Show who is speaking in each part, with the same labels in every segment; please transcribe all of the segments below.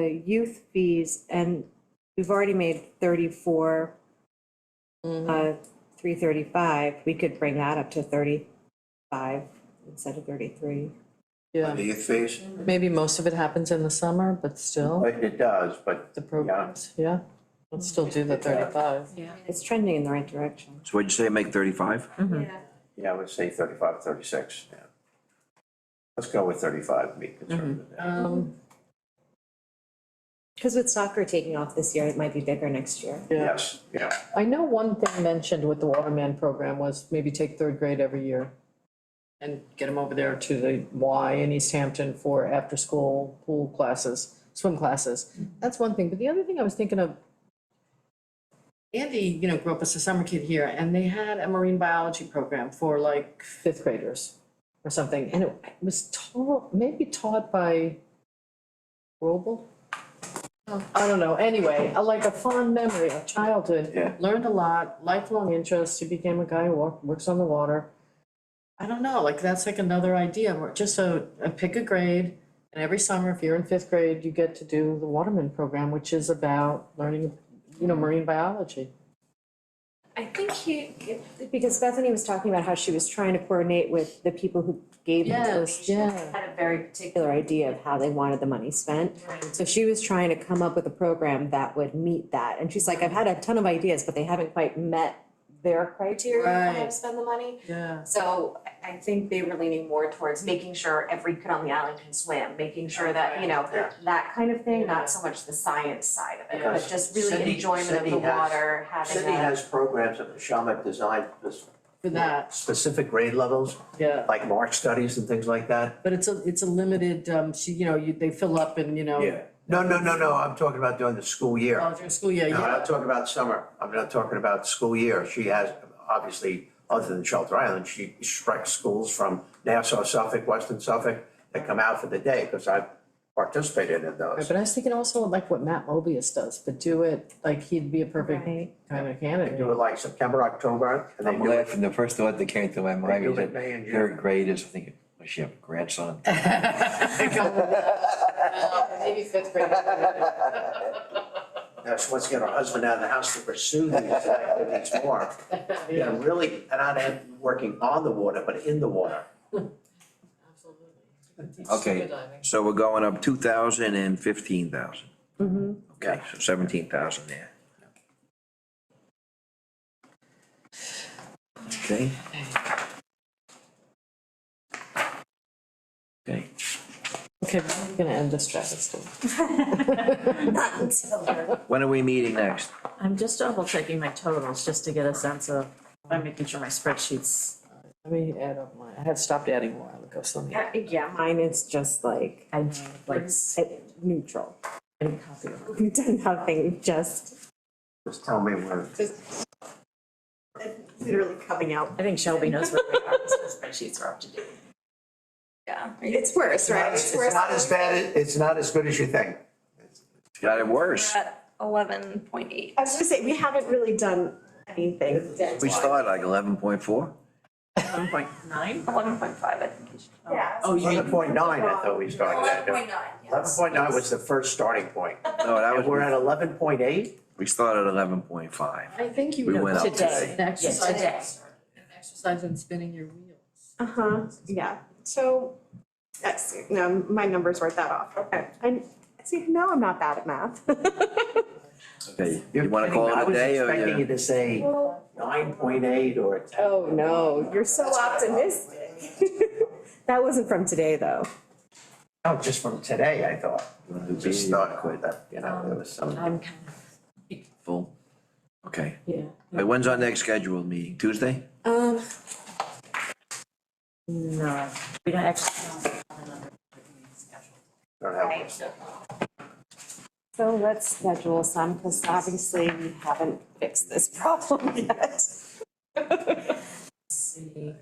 Speaker 1: the youth fees, and we've already made thirty-four, uh, three thirty-five, we could bring that up to thirty-five instead of thirty-three.
Speaker 2: Yeah,
Speaker 3: The youth fees,
Speaker 2: maybe most of it happens in the summer, but still,
Speaker 3: Like, it does, but.
Speaker 2: the programs, yeah, let's still do the thirty-five. Yeah.
Speaker 1: It's trending in the right direction.
Speaker 4: So what'd you say, make thirty-five?
Speaker 2: Mm-hmm.
Speaker 3: Yeah, I would say 35, 36. yeah. Let's go with thirty-five, and be conservative.
Speaker 2: Um,
Speaker 1: Because with soccer taking off this year, it might be bigger next year.
Speaker 2: yeah,
Speaker 3: Yes, yeah,
Speaker 2: I know one thing mentioned with the Waterman program was maybe take third grade every year and get them over there to the Y in East Hampton for after-school pool classes, swim classes. That's one thing, but the other thing I was thinking of, Andy, you know, grew up as a summer kid here, and they had a marine biology program for like fifth graders or something, and it was taught, maybe taught by Robel? I don't know, anyway, a- like a fond memory of childhood.
Speaker 3: Yeah.
Speaker 2: Learned a lot, lifelong interest, he became a guy who walk- works on the water. I don't know, like that's like another idea, where just a, a pick a grade, and every summer, if you're in fifth grade, you get to do the Waterman program, which is about learning, you know, marine biology.
Speaker 1: I think he, because Bethany was talking about how she was trying to coordinate with the people who gave the
Speaker 2: Yes,
Speaker 1: donation.
Speaker 2: yeah.
Speaker 1: Had a very particular idea of how they wanted the money spent. So she was trying to come up with a program that would meet that, and she's like, I've had a ton of ideas, but they haven't quite met their criteria for how to
Speaker 2: Right.
Speaker 1: spend the money.
Speaker 2: Yeah.
Speaker 1: So I- I think they were leaning more towards making sure every kid on the island can swim, making sure that, you know,
Speaker 3: Yeah.
Speaker 1: that kind of thing,
Speaker 2: Yeah.
Speaker 1: not so much the science side of it, but
Speaker 3: Because
Speaker 1: just really
Speaker 3: Cindy-
Speaker 1: enjoyment of the
Speaker 3: Cindy has-
Speaker 1: water, having a.
Speaker 3: City has programs that the Shawmut designed for
Speaker 2: For that,
Speaker 3: specific grade levels,
Speaker 2: yeah,
Speaker 3: like mark studies and things like that.
Speaker 2: but it's a, it's a limited, um, she, you know, you, they fill up and, you know.
Speaker 3: Yeah, no, no, no, no, I'm talking about during the school year.
Speaker 2: College or school, yeah,
Speaker 3: No, I'm not
Speaker 2: yeah,
Speaker 3: talking about summer, I'm not talking about school year, she has, obviously, other than Shelter Island, she strikes schools from Nassau, Suffolk, Western Suffolk, that come out for the day, because I've participated in
Speaker 2: Right,
Speaker 3: those.
Speaker 2: but I was thinking also like what Matt Mobius does, but do it, like he'd be a perfect
Speaker 1: Right.
Speaker 2: kind of
Speaker 3: They do
Speaker 2: candidate.
Speaker 3: it like September, October, and they
Speaker 4: I'm
Speaker 3: do it,
Speaker 4: laughing, the first thought that came to my
Speaker 3: they
Speaker 4: mind
Speaker 3: do
Speaker 4: was
Speaker 3: it
Speaker 4: that
Speaker 3: May and
Speaker 4: third
Speaker 3: June.
Speaker 4: grade is, I think, does she have a grandson?
Speaker 2: Maybe fifth grade.
Speaker 3: That's what's get her husband out of the house to pursue these activities more. Yeah,
Speaker 2: Yeah,
Speaker 3: really, and not am working on the water, but in the water.
Speaker 2: absolutely.
Speaker 4: Okay.
Speaker 2: Scuba diving.
Speaker 4: So we're going up two thousand and fifteen thousand.
Speaker 3: Mm-hmm.
Speaker 1: Mhm.
Speaker 4: Okay, so seventeen thousand there. Okay. Okay,
Speaker 2: Okay, we're gonna end this travesty.
Speaker 1: Not until they're
Speaker 4: when are we meeting next?
Speaker 5: I'm just double checking my totals just to get a sense of, I'm making sure my spreadsheet's,
Speaker 2: Let me add up my, I had stopped adding a while ago, so let me.
Speaker 1: Uh, Yeah, mine is just like,
Speaker 5: I like,
Speaker 1: it's neutral.
Speaker 5: I didn't copy it.
Speaker 1: We've done nothing, just
Speaker 3: Just tell me when.
Speaker 1: literally coming out.
Speaker 5: I think Shelby knows where we are, so the spreadsheets are up to date.
Speaker 1: Yeah. It's worse, right?
Speaker 3: It's not as bad, as- it's not as good as you think.
Speaker 4: Got it worse.
Speaker 6: at eleven point eight.
Speaker 1: I was gonna say, we haven't really done anything.
Speaker 4: We started like eleven point four?
Speaker 5: One point nine?
Speaker 6: Eleven point five, I think. it should-
Speaker 1: Yeah.
Speaker 5: Oh, you mean,
Speaker 3: Eleven point nine, I thought we started at.
Speaker 6: nine,
Speaker 3: Eleven point nine was the first starting point.
Speaker 4: No, that
Speaker 3: And we're
Speaker 4: was,
Speaker 3: at eleven point eight?
Speaker 4: we started at eleven point five.
Speaker 2: I think you
Speaker 4: We went up
Speaker 2: today, an exercise.
Speaker 5: today.
Speaker 2: An exercise in spinning your wheels.
Speaker 1: Uh-huh, yeah, so, that's, no, my numbers weren't that off, okay. And, see, no, I'm not bad at math.
Speaker 4: Okay, you wanna call it a day or
Speaker 3: I was expecting you
Speaker 4: you?
Speaker 3: to say nine point eight or ten.
Speaker 1: Oh, no, you're so optimistic. That wasn't from today, though.
Speaker 3: No, just from today, I thought. Just thought with that, you know, there was some.
Speaker 5: I'm kind of,
Speaker 4: Full? Okay,
Speaker 5: yeah.
Speaker 4: Wait, when's our next scheduled meeting? Tuesday?
Speaker 1: Um,
Speaker 5: No, we don't actually have another schedule.
Speaker 3: don't have one.
Speaker 1: so let's schedule some, because obviously we haven't fixed this problem yet.
Speaker 5: See.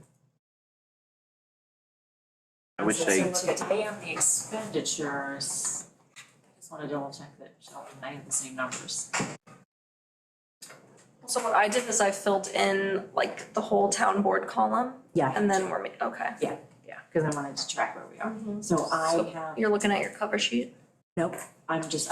Speaker 4: I would say,
Speaker 5: So today on the expenditures, I just wanna double check that Shelby and I have the same numbers.
Speaker 6: So what I did is I filled in like the whole town board column
Speaker 5: Yeah.
Speaker 6: and then we're, ma- okay.
Speaker 5: Yeah, yeah, cause I wanted to track where we are. So I have,
Speaker 6: You're looking at your cover sheet?
Speaker 5: nope, I'm just,